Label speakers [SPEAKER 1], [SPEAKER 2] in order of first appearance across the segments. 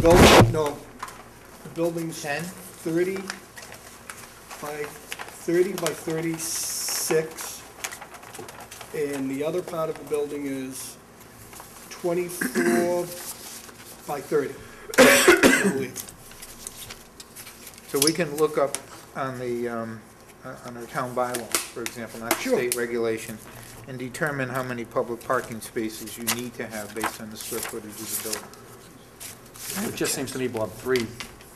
[SPEAKER 1] building, no, the building's
[SPEAKER 2] Ten?
[SPEAKER 1] thirty by, thirty by thirty-six. And the other part of the building is twenty-four by thirty, I believe.
[SPEAKER 2] So we can look up on the, um, uh, on our town bylaws, for example, not
[SPEAKER 1] Sure.
[SPEAKER 2] state regulations, and determine how many public parking spaces you need to have based on the square footage of the building.
[SPEAKER 3] It just seems to me, Bob, three,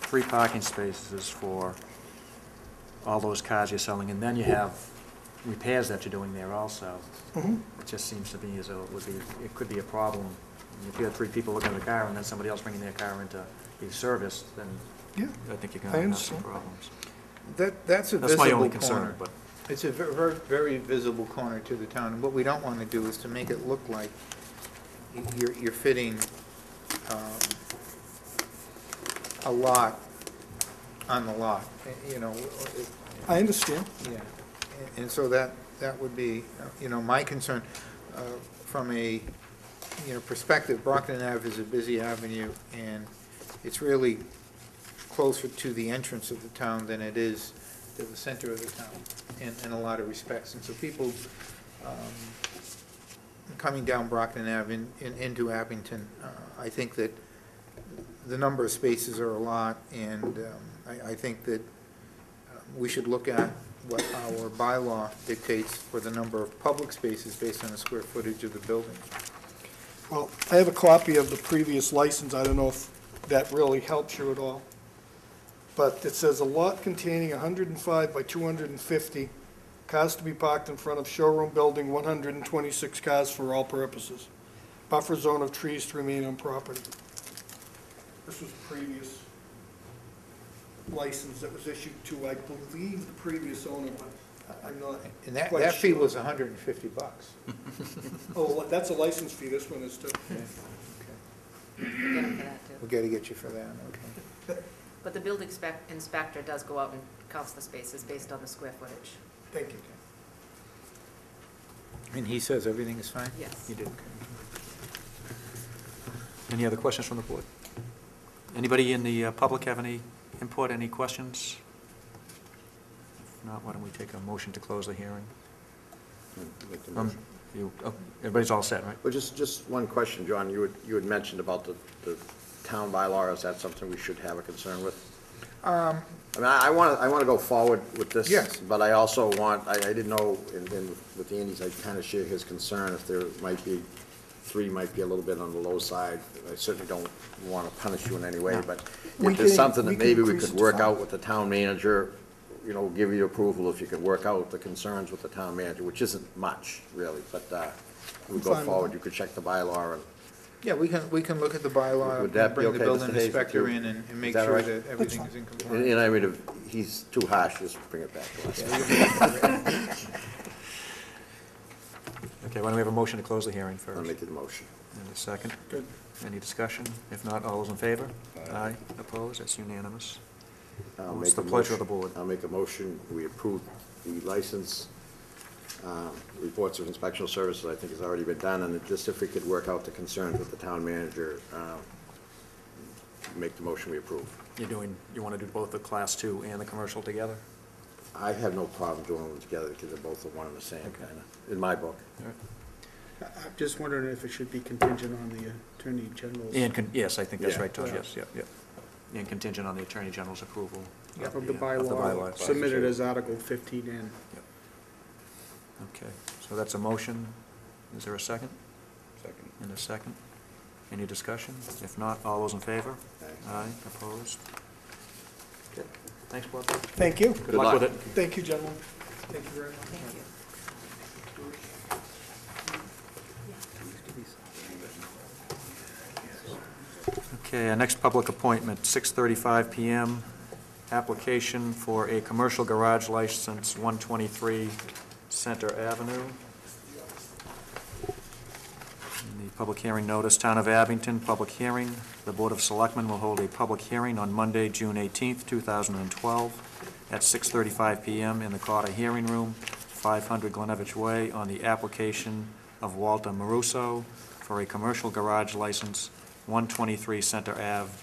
[SPEAKER 3] three parking spaces for all those cars you're selling, and then you have repairs that you're doing there also. It just seems to me as though it would be, it could be a problem. If you have three people looking at the car and then somebody else bringing their car into the service, then
[SPEAKER 1] Yeah,
[SPEAKER 3] I think you're
[SPEAKER 1] I
[SPEAKER 3] gonna have some
[SPEAKER 1] understand.
[SPEAKER 3] problems.
[SPEAKER 2] That, that's a
[SPEAKER 3] That's my only
[SPEAKER 2] visible corner.
[SPEAKER 3] concern, but
[SPEAKER 2] It's a ver- ver- very visible corner to the town, and what we don't want to do is to make it look like y- you're, you're fitting um, a lot on the lot, eh, you know, it-
[SPEAKER 1] I understand.
[SPEAKER 2] Yeah, and so that, that would be, uh, you know, my concern uh, from a, you know, perspective, Brockton Ave is a busy avenue, and it's really closer to the entrance of the town than it is to the center of the town in, in a lot of respects. And so people um, coming down Brockton Ave in- in- into Abington, uh, I think that the number of spaces are a lot, and um, I, I think that we should look at what our bylaw dictates for the number of public spaces based on the square footage of the building.
[SPEAKER 1] Well, I have a copy of the previous license, I don't know if that really helps you at all. But it says a lot containing hundred and five by two hundred and fifty, cars to be parked in front of showroom building, one hundred and twenty-six cars for all purposes. Buffer zone of trees to remain on property. This was previous license that was issued to, I believe, the previous owner, but I- I'm not
[SPEAKER 2] And that,
[SPEAKER 1] quite
[SPEAKER 2] that fee
[SPEAKER 1] sure.
[SPEAKER 2] was hundred and fifty bucks.
[SPEAKER 1] Oh, that's a license fee, this one is too.
[SPEAKER 4] get them for that, too.
[SPEAKER 2] We gotta get you for that, okay.
[SPEAKER 4] But the building spec- inspector does go out and counts the spaces based on the square footage,
[SPEAKER 1] Thank you.
[SPEAKER 2] And he says everything is fine?
[SPEAKER 4] yes.
[SPEAKER 3] you did. Any other questions from the board? Anybody in the uh, public have any input, any questions? If not, why don't we take a motion to close the hearing?
[SPEAKER 5] Make the
[SPEAKER 3] Um,
[SPEAKER 5] motion.
[SPEAKER 3] you- oh, Everybody's all set, right?
[SPEAKER 5] Well, just, just one question, John. You had, you had mentioned about the, the town bylaw. Is that something we should have a concern with? I mean, I want to, I want to go forward with this.
[SPEAKER 2] Yes.
[SPEAKER 5] But I also want, I, I didn't know, and then with Andy's, I kind of share his concern if there might be, three might be a little bit on the low side. I certainly don't want to punish you in any way, but
[SPEAKER 1] We
[SPEAKER 5] if there's
[SPEAKER 1] can-
[SPEAKER 5] something
[SPEAKER 1] we
[SPEAKER 5] that
[SPEAKER 1] can
[SPEAKER 5] maybe we
[SPEAKER 1] increase it
[SPEAKER 5] could
[SPEAKER 1] to
[SPEAKER 5] work
[SPEAKER 1] five.
[SPEAKER 5] out with the town manager, you know, give you approval if you could work out the concerns with the town manager, which isn't much, really, but, uh, we
[SPEAKER 1] I'm
[SPEAKER 5] go
[SPEAKER 1] fine with
[SPEAKER 5] forward,
[SPEAKER 1] that.
[SPEAKER 5] you could check the bylaw and
[SPEAKER 2] Yeah, we can, we can look at the bylaw,
[SPEAKER 5] Would that be
[SPEAKER 2] bring the
[SPEAKER 5] okay,
[SPEAKER 2] building
[SPEAKER 5] Mr. Hayes, with
[SPEAKER 2] inspector
[SPEAKER 5] you?
[SPEAKER 2] in and, and make
[SPEAKER 5] Is that all
[SPEAKER 2] sure
[SPEAKER 5] right?
[SPEAKER 2] that everything is in
[SPEAKER 5] And
[SPEAKER 2] compliance.
[SPEAKER 5] and I mean, if he's too harsh, just bring it back to us.
[SPEAKER 3] Okay, why don't we have a motion to close the hearing first?
[SPEAKER 5] I'll make the motion.
[SPEAKER 3] And a second?
[SPEAKER 1] Good.
[SPEAKER 3] Any discussion? If not, all those in favor? Aye. Opposed? That's unanimous.
[SPEAKER 5] I'll
[SPEAKER 3] What's
[SPEAKER 5] make
[SPEAKER 3] the
[SPEAKER 5] a
[SPEAKER 3] pleasure of the
[SPEAKER 5] motion-
[SPEAKER 3] board?
[SPEAKER 5] I'll make a motion, we approve the license, um, reports of inspectional services, I think has already been done, and just if we could work out the concerns with the town manager, um, make the motion we approve.
[SPEAKER 3] You're doing, you want to do both the Class 2 and the commercial together?
[SPEAKER 5] I have no problem doing them together, because they're both the one and the same,
[SPEAKER 3] Okay.
[SPEAKER 5] kinda, in my book.
[SPEAKER 3] All right.
[SPEAKER 6] I- I'm just wondering if it should be contingent on the Attorney General's
[SPEAKER 3] And, con- yes, I think that's
[SPEAKER 5] Yeah.
[SPEAKER 3] right, Todd,
[SPEAKER 6] Yeah.
[SPEAKER 3] yes, yep, yep. And contingent on the Attorney General's approval.
[SPEAKER 6] of the
[SPEAKER 3] Of the bylaw.
[SPEAKER 6] bylaw submitted as Article 15N.
[SPEAKER 3] Okay, so that's a motion. Is there a second?
[SPEAKER 6] Second.
[SPEAKER 3] And a second? Any discussion? If not, all those in favor?
[SPEAKER 5] Aye.
[SPEAKER 3] Aye. Opposed?
[SPEAKER 5] Okay.
[SPEAKER 3] Thanks, Bob.
[SPEAKER 1] Thank you.
[SPEAKER 3] Good luck with it.
[SPEAKER 1] Thank you, gentlemen. Thank you very much.
[SPEAKER 4] Thank you.
[SPEAKER 3] Okay, our next public appointment, 6:35 PM, application for a commercial garage license, 123 Center Avenue. And The public hearing notice, Town of Abington, public hearing. The Board of Selectmen will hold a public hearing on Monday, June 18th, 2012, at 6:35 PM in the Carter Hearing Room, 500 Glenavich Way, on the application of Walter Maruso for a commercial garage license, 123 Center Ave,